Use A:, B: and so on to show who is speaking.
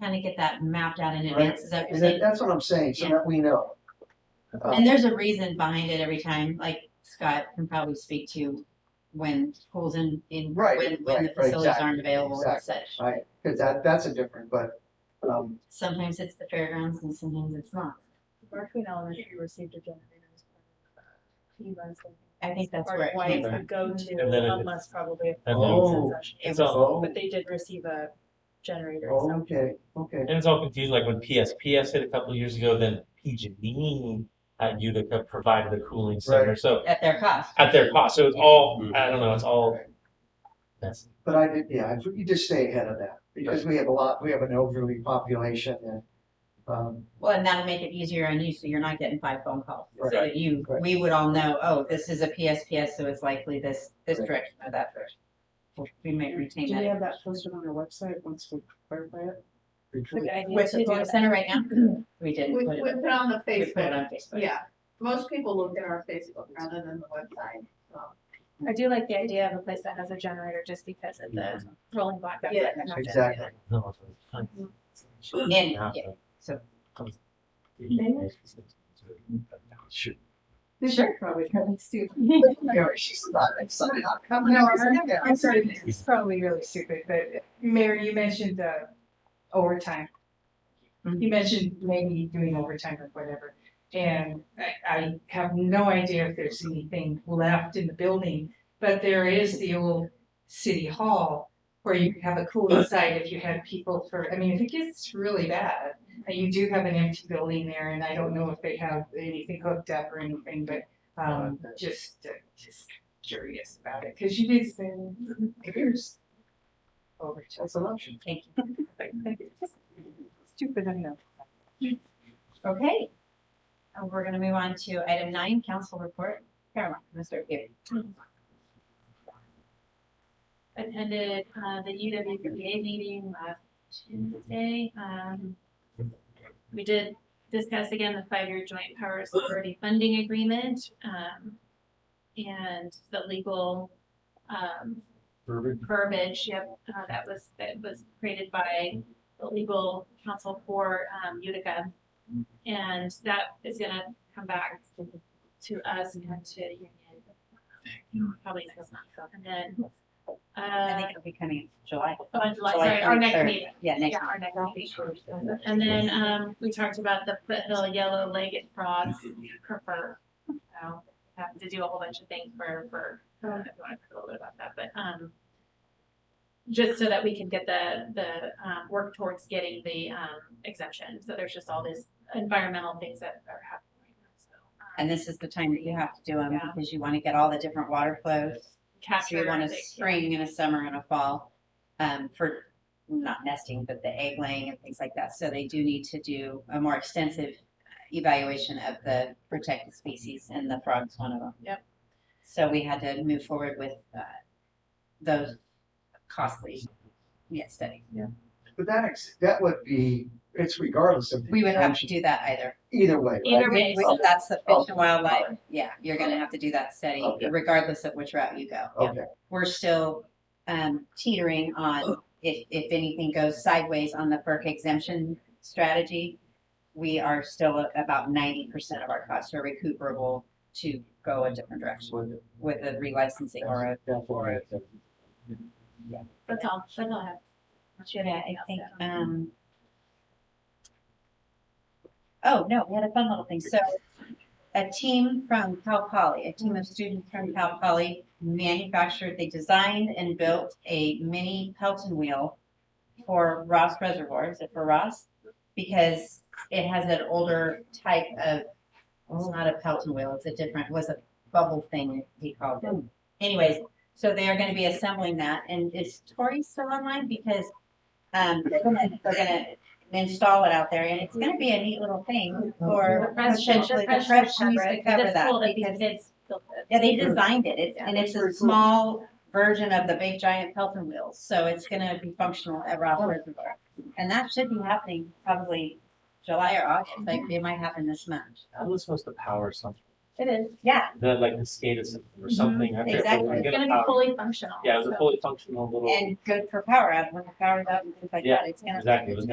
A: kind of get that mapped out in
B: Right.
A: advance, is that what you're
B: And that,
A: saying?
B: that's what I'm saying, so
A: Yeah.
B: that we know. Uh,
A: And there's a reason behind it every time, like Scott can probably speak to when pools in, in,
B: Right,
A: when, when the
B: right, right,
A: facilities
B: exactly,
A: aren't available and
B: exactly.
A: such.
B: Right, cause that, that's a different, but, um,
A: Sometimes it's the fairgrounds and sometimes it's not.
C: Berkeley Elementary received a generator as uh, part of FEMA's.
A: I think that's
C: Part
A: where
C: of
A: it
C: why
A: came
C: it's
D: from.
C: the go-to
D: And then it-
C: unless probably. a
D: And
B: Oh.
D: then,
C: concession.
A: It
D: it's Oh.
A: was-
D: all,
B: oh,
C: But they did receive a generator, so
B: okay, okay.
D: and it's all confusing, like when PSPS hit a couple years ago, then PG&E at Utica provided the cooling center, so
A: at their cost.
D: at their cost, so it's all, I don't know, it's all messy.
B: But I did, yeah, if you just stay ahead of that, because we have a lot, we have an elderly population and, um,
A: Well, and that'll make it easier on you, so you're not getting five phone calls. So
B: Right.
A: that you,
B: Right.
A: we would all know, oh, this is a PSPS, so it's likely this, this
B: Right.
A: direction or that direction. Well, We may retain
E: Do we
A: that.
E: have that posted on our website once we clarify it?
C: the idea
A: Where's
C: to
A: the
C: do
A: phone
C: that.
A: center right now? We didn't
F: We,
A: put
F: we
A: it,
F: put on the
A: we put it
F: Facebook,
A: on Facebook.
F: yeah. Most people look at our Facebook rather than the website, so.
C: I do like the idea of a place that has a generator just because of the rolling blackouts.
F: Yeah.
C: that can happen.
B: exactly.
D: No, it's-
A: And,
D: Yeah.
A: yeah, so-
D: Sure.
A: This Sure.
E: Probably really stupid.
B: Yeah, she's not, it's not, how come
E: No,
B: now?
E: I'm, I'm sorry, it's probably really stupid, but Mary, you mentioned uh, overtime.
A: Mhm.
E: You mentioned maybe doing overtime or whatever. And I, I have no idea if there's anything left in the building, but there is the old city hall where you have a cooling site if you had people for, I mean, if it gets really bad, uh, you do have an empty building there and I don't know if they have anything hooked up or anything, but um, just, uh, just curious about it, because you did spend years over to
B: That's an option.
A: thank you.
E: Stupid, I know.
A: Okay. And we're gonna move on to item nine, council report. Caroline, Mr. Gary.
G: attended uh, the UWPA meeting
C: uh,
G: last Tuesday. Um, We did discuss again the five-year joint powers authority funding agreement um, and the legal um, verbiage, yep, uh, that was, that was created by the legal counsel for um, Utica. And that is gonna come back to us and to the union. Probably next month, and then
A: I
G: uh,
A: think it'll be coming in July.
G: on July, sorry, our next
A: 23rd.
G: meeting.
A: Yeah, next.
G: Yeah, our next meeting. And then, um, we talked about the foothill yellow-legged frogs for fur. So, have to do a whole bunch of things for, for, I don't know if you want to talk a little bit about that, but, um, just so that we can get the, the, um, work towards getting the, um, exemption. So there's just all these environmental things that are happening right now, so. um,
A: And this is the time that you have to do them
G: Yeah.
A: because you want to get all the different water flows. So you
G: Um, capture
A: want a
G: the- yeah.
A: spring and a summer and a fall, um, for not nesting, but the egg laying and things like that. So they do need to do a more extensive evaluation of the protected species and the frog's one of them.
G: Yep.
A: So we had to move forward with, uh, those costly, yeah, studies.
B: But that, ex- that would be, it's regardless of. the
A: We would have to
B: action.
A: do that either.
B: Either way. right?
G: Either way,
A: We-
G: so-
A: That's the fish and
B: Oh.
A: wildlife, yeah, you're gonna have to do that study
B: Okay. Oh,
A: regardless of which route you go.
B: Okay,
A: we're still um, teetering on if, if anything goes sideways on the FERC exemption strategy. We are still at about ninety percent of our costs are recuperable to go a different direction with a relicensing or a.
B: that's all right.
G: That's all, that's all I have.
A: um. Oh, no, we had a fun little thing. So a team from Cal Poly, a team of students from Cal Poly manufactured, they designed and built a mini Pelton wheel for Ross Reservoir. Is it for Ross? Because it has an older type of, it's not a Pelton wheel, it's a different, was a bubble thing he called it. Anyways, so they are gonna be assembling that and is Tori still online? Because um, they're gonna, they're gonna install it out there and it's gonna be a neat little thing for potentially Oh, the press needs to cover that. because- Yeah, they designed it, it's, and it's a small version of the big giant Pelton wheels, so it's gonna be functional at Ross Reservoir. And that should be happening probably July or August, like it might happen this month.
D: I was supposed to power something,
G: It is,
A: Yeah,
D: that like the SCADA system or something. I forget what
A: exactly.
D: we're
G: it's
D: gonna
G: gonna be
D: power.
G: fully functional.
D: Yeah, it was a
G: so-
D: fully functional little,
A: and good for power out, when the power's out and things like
D: Yeah,
A: that, it's gonna.
D: exactly, it was